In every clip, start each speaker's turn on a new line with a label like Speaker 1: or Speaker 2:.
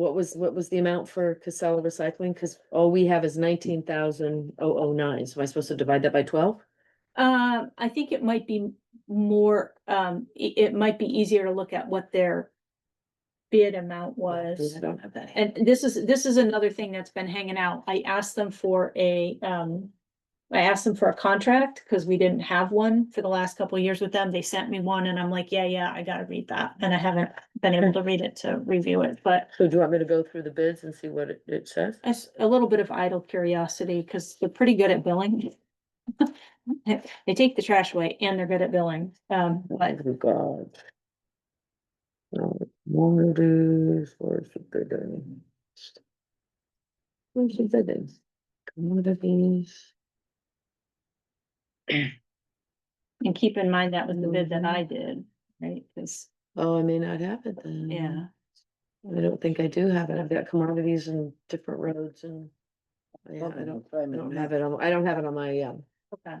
Speaker 1: What was, what was the amount for Casella Recycling? Cause all we have is nineteen thousand oh oh nine. So am I supposed to divide that by twelve?
Speaker 2: Um, I think it might be more, um, i- it might be easier to look at what their bid amount was.
Speaker 1: Oh, I don't have that.
Speaker 2: And this is, this is another thing that's been hanging out. I asked them for a, um. I asked them for a contract because we didn't have one for the last couple of years with them. They sent me one and I'm like, yeah, yeah, I gotta read that. And I haven't been able to read it to review it, but.
Speaker 1: So do you want me to go through the bids and see what it, it says?
Speaker 2: As a little bit of idle curiosity, because they're pretty good at billing. They take the trash away and they're good at billing, um, but
Speaker 1: Oh, God. Uh, Commodities, where's the bidding? Where's the bidding? Commodities.
Speaker 2: and keep in mind that was the bid that I did, right? Because,
Speaker 1: Oh, I may not have it then.
Speaker 2: yeah,
Speaker 1: I don't think I do have it. I've got commodities and different roads and. Yeah, I don't, I don't have it on, I don't have it on my, um,
Speaker 2: okay,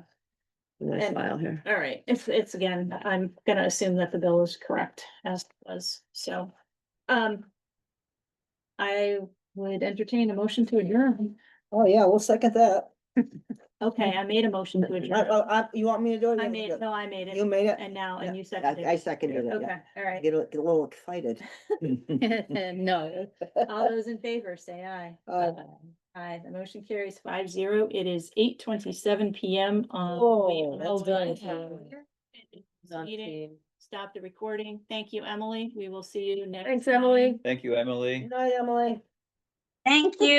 Speaker 1: nice
Speaker 2: And-
Speaker 1: file here.
Speaker 2: all right, it's, it's again, I'm gonna assume that the bill is correct as it was, so, um. I would entertain a motion to adjourn.
Speaker 3: Oh, yeah, we'll second that.
Speaker 2: Okay, I made a motion to
Speaker 3: I-
Speaker 2: adjourn.
Speaker 3: I- I- Uh, Oh, you want me to do it?
Speaker 2: I made, no, I made
Speaker 3: You
Speaker 2: it,
Speaker 3: made it?
Speaker 2: and now, and you seconded
Speaker 3: I, I
Speaker 2: it.
Speaker 3: seconded it,
Speaker 2: Okay,
Speaker 3: yeah.
Speaker 2: all right.
Speaker 3: Get a, get a little excited.
Speaker 2: No, all those in favor, say aye.
Speaker 3: Aye.
Speaker 2: Aye, the motion carries five zero. It is eight twenty-seven PM on.
Speaker 1: Oh,
Speaker 2: Wait, let's
Speaker 1: well done,
Speaker 2: go. Meeting,
Speaker 1: Thanks,
Speaker 2: Stop the recording. Thank you, Emily. We will see you next. time.
Speaker 1: Emily.
Speaker 4: Thank you, Emily.
Speaker 3: Good night, Emily.
Speaker 5: Thank you.